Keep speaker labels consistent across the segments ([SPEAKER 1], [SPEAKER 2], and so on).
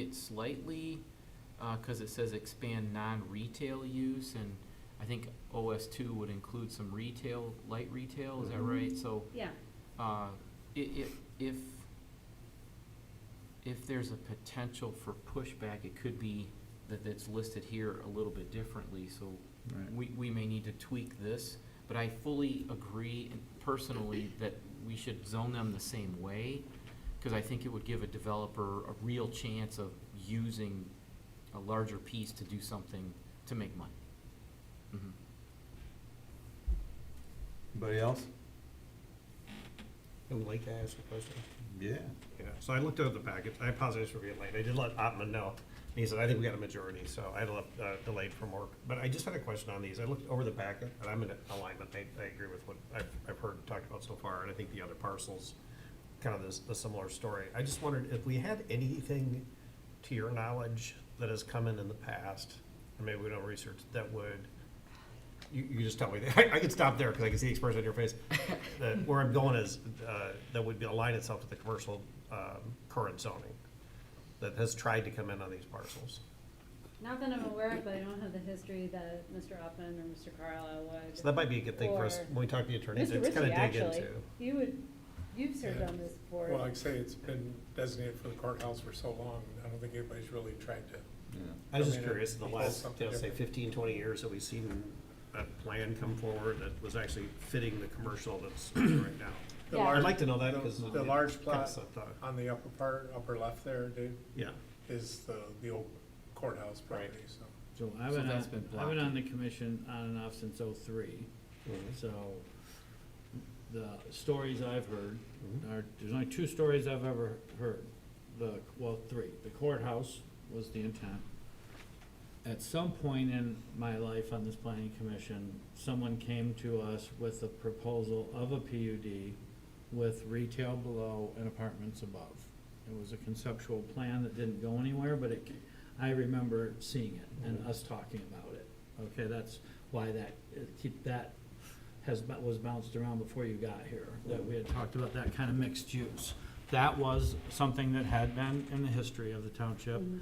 [SPEAKER 1] it slightly, because it says expand non-retail use, and I think OS two would include some retail, light retail, is that right? So,
[SPEAKER 2] Yeah,
[SPEAKER 1] uh, i- i- if, if there's a potential for pushback, it could be that it's listed here a little bit differently, so
[SPEAKER 3] Right.
[SPEAKER 1] we, we may need to tweak this, but I fully agree personally that we should zone them the same way, because I think it would give a developer a real chance of using a larger piece to do something to make money. Mhm.
[SPEAKER 3] Anybody else?
[SPEAKER 4] I would like to ask a question.
[SPEAKER 3] Yeah.
[SPEAKER 4] Yeah, so I looked over the package, I apologize for being late, I did let Ottman know, and he said, I think we got a majority, so I left, uh, delayed from work. But I just had a question on these, I looked over the packet, and I'm in alignment, I, I agree with what I've, I've heard and talked about so far, and I think the other parcels, kind of this, a similar story. I just wondered if we had anything, to your knowledge, that has come in in the past, and maybe we don't research, that would you, you just tell me. I, I can stop there because I can see the expression on your face. that where I'm going is uh, that would be align itself to the commercial um, current zoning that has tried to come in on these parcels.
[SPEAKER 2] not that I'm aware of, but I don't have the history that Mr. Oppen or Mr. Carlisle would.
[SPEAKER 4] So that might be a good thing for us
[SPEAKER 2] Or-
[SPEAKER 4] when we talk to the attorneys.
[SPEAKER 2] Mr.
[SPEAKER 4] It's kind
[SPEAKER 2] Ritchie,
[SPEAKER 4] of dig
[SPEAKER 2] actually,
[SPEAKER 4] into.
[SPEAKER 2] you would, you've served
[SPEAKER 5] Yeah.
[SPEAKER 2] on this board.
[SPEAKER 5] Well, like I say, it's been designated for the courthouse for so long, I don't think anybody's really tried to.
[SPEAKER 4] I was
[SPEAKER 5] I
[SPEAKER 4] just
[SPEAKER 5] mean,
[SPEAKER 4] curious in the
[SPEAKER 5] it equals
[SPEAKER 4] last,
[SPEAKER 5] something
[SPEAKER 4] you know, say
[SPEAKER 5] different.
[SPEAKER 4] 15, 20 years that we've seen a plan come forward that was actually fitting the commercial that's right now.
[SPEAKER 5] The
[SPEAKER 2] Yeah.
[SPEAKER 4] I'd
[SPEAKER 5] large-
[SPEAKER 4] like to know that
[SPEAKER 5] the-
[SPEAKER 4] because
[SPEAKER 5] The large plot
[SPEAKER 4] thought.
[SPEAKER 5] on the upper part, upper left there, Dave,
[SPEAKER 4] Yeah.
[SPEAKER 5] is the, the old courthouse
[SPEAKER 4] Right.
[SPEAKER 5] property, so.
[SPEAKER 6] So I've
[SPEAKER 1] So
[SPEAKER 6] been
[SPEAKER 1] that's
[SPEAKER 6] on,
[SPEAKER 1] been
[SPEAKER 6] I've been
[SPEAKER 1] blocking.
[SPEAKER 6] on the commission on and off since oh-three, so the stories I've heard
[SPEAKER 5] Mm-hmm.
[SPEAKER 6] are, there's only two stories I've ever heard. The, well, three. The courthouse was the intent. At some point in my life on this planning commission, someone came to us with a proposal of a PUD with retail below and apartments above. It was a conceptual plan that didn't go anywhere, but it, I remember seeing it and us talking about it. Okay, that's why that, it- keep that has, bo- was bounced around before you got here, that we had talked about that kind of mixed use. That was something that had been in the history of the township.
[SPEAKER 2] Mhm.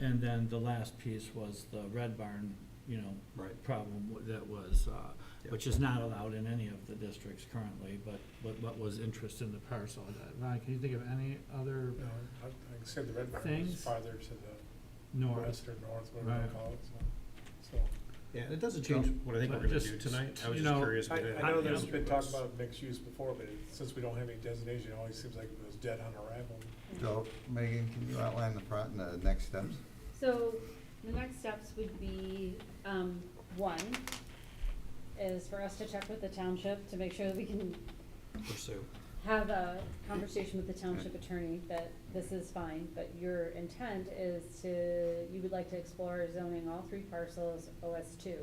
[SPEAKER 6] And then the last piece was the Red Barn, you know,
[SPEAKER 4] Right.
[SPEAKER 6] problem w- that was, uh, which is not allowed in any of the districts currently, but, but what was interest in the parcel. Ron, can you think of any other
[SPEAKER 5] No, I- Like I said, the red barn is
[SPEAKER 6] Things?
[SPEAKER 5] farther to the
[SPEAKER 6] north?
[SPEAKER 5] west or north, whatever you
[SPEAKER 6] Right.
[SPEAKER 5] call it, so. so.
[SPEAKER 4] Yeah, and it doesn't change what I think we're
[SPEAKER 6] But
[SPEAKER 4] gonna
[SPEAKER 6] just,
[SPEAKER 4] do tonight. I was
[SPEAKER 6] you
[SPEAKER 4] just
[SPEAKER 6] know,
[SPEAKER 4] curious.
[SPEAKER 5] I,
[SPEAKER 4] if it had
[SPEAKER 5] I know
[SPEAKER 4] any
[SPEAKER 5] there's
[SPEAKER 4] other
[SPEAKER 5] been talk
[SPEAKER 4] votes.
[SPEAKER 5] about mixed use before, but it- since we don't have any designation, it always seems like it was dead on arrival.
[SPEAKER 3] So, Megan, can you outline the pro, the next steps?
[SPEAKER 2] So the next steps would be, um, one, is for us to check with the township to make sure that we can
[SPEAKER 4] Pursue.
[SPEAKER 2] have a conversation with the township attorney that this is fine, but your intent is to, you would like to explore zoning all three parcels OS two.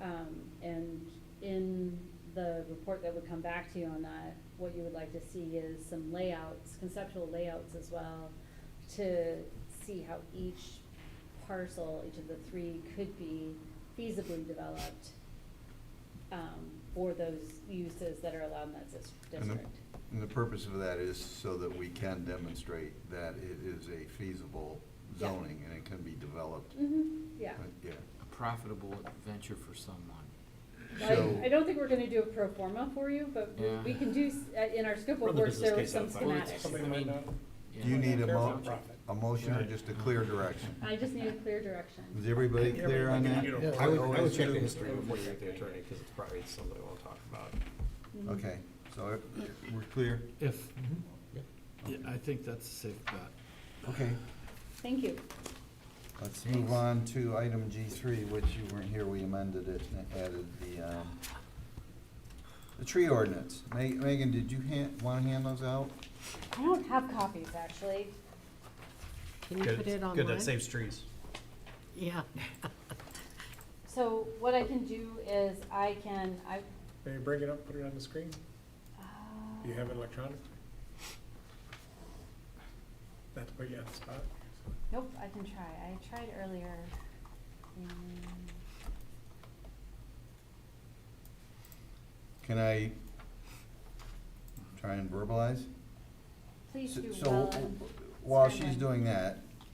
[SPEAKER 2] Um, and in the report that would come back to you on that, what you would like to see is some layouts, conceptual layouts as well, to see how each parcel, each of the three could be feasibly developed, um, for those uses that are allowed in that dis-
[SPEAKER 3] And the-
[SPEAKER 2] district.
[SPEAKER 3] And the purpose of that is so that we can demonstrate that it is a feasible
[SPEAKER 2] Yeah.
[SPEAKER 3] zoning and it can be developed.
[SPEAKER 2] hmm yeah.
[SPEAKER 4] Mm-hmm.
[SPEAKER 3] Uh, Yeah.
[SPEAKER 1] A profitable venture for someone.
[SPEAKER 3] So-
[SPEAKER 2] I, I don't think we're gonna do a pro forma for you, but we-
[SPEAKER 1] Yeah.
[SPEAKER 2] we can do, s- uh, in our scope
[SPEAKER 4] Run
[SPEAKER 2] of
[SPEAKER 4] the
[SPEAKER 2] work, there was
[SPEAKER 4] business
[SPEAKER 2] some
[SPEAKER 4] case out
[SPEAKER 1] Well, it's-
[SPEAKER 2] schematics.
[SPEAKER 5] Something
[SPEAKER 1] I
[SPEAKER 5] like
[SPEAKER 1] mean,
[SPEAKER 5] that.
[SPEAKER 1] yeah.
[SPEAKER 3] Do you need a
[SPEAKER 5] Fair
[SPEAKER 3] mo,
[SPEAKER 5] profit.
[SPEAKER 3] a motion or
[SPEAKER 4] Right.
[SPEAKER 3] just a clear direction?
[SPEAKER 2] I just need a clear direction.
[SPEAKER 3] Is everybody clear on that?
[SPEAKER 5] Yeah.
[SPEAKER 4] I would, I would
[SPEAKER 3] Always
[SPEAKER 4] check the
[SPEAKER 3] do.
[SPEAKER 4] history before you get the attorney, because it's probably something we'll talk about.
[SPEAKER 2] Mhm.
[SPEAKER 3] Okay, so it- we're clear?
[SPEAKER 6] If,
[SPEAKER 4] Yep.
[SPEAKER 6] yeah, I think that's a safe bet.
[SPEAKER 3] Okay,
[SPEAKER 2] Thank you.
[SPEAKER 3] let's move on to item G three, which you weren't here, we amended it and added the, um, the tree ordinance. Ma- Megan, did you hand, wanna hand those out?
[SPEAKER 2] I don't have copies, actually.
[SPEAKER 7] Can you
[SPEAKER 4] Good-
[SPEAKER 7] put
[SPEAKER 4] Good,
[SPEAKER 7] it
[SPEAKER 4] that
[SPEAKER 7] online?
[SPEAKER 4] saves trees.
[SPEAKER 7] Yeah.
[SPEAKER 2] So what I can do is I can, I,
[SPEAKER 5] Maybe bring it up, put it on the screen,
[SPEAKER 2] uh,
[SPEAKER 5] do you have it electronically? Not to put you on the spot.
[SPEAKER 2] nope, I can try. I tried earlier. Mm, and-
[SPEAKER 3] Can I try and verbalize?
[SPEAKER 2] Please do
[SPEAKER 3] So,
[SPEAKER 2] well. and
[SPEAKER 3] while
[SPEAKER 2] spend
[SPEAKER 3] she's
[SPEAKER 2] my-
[SPEAKER 3] doing that,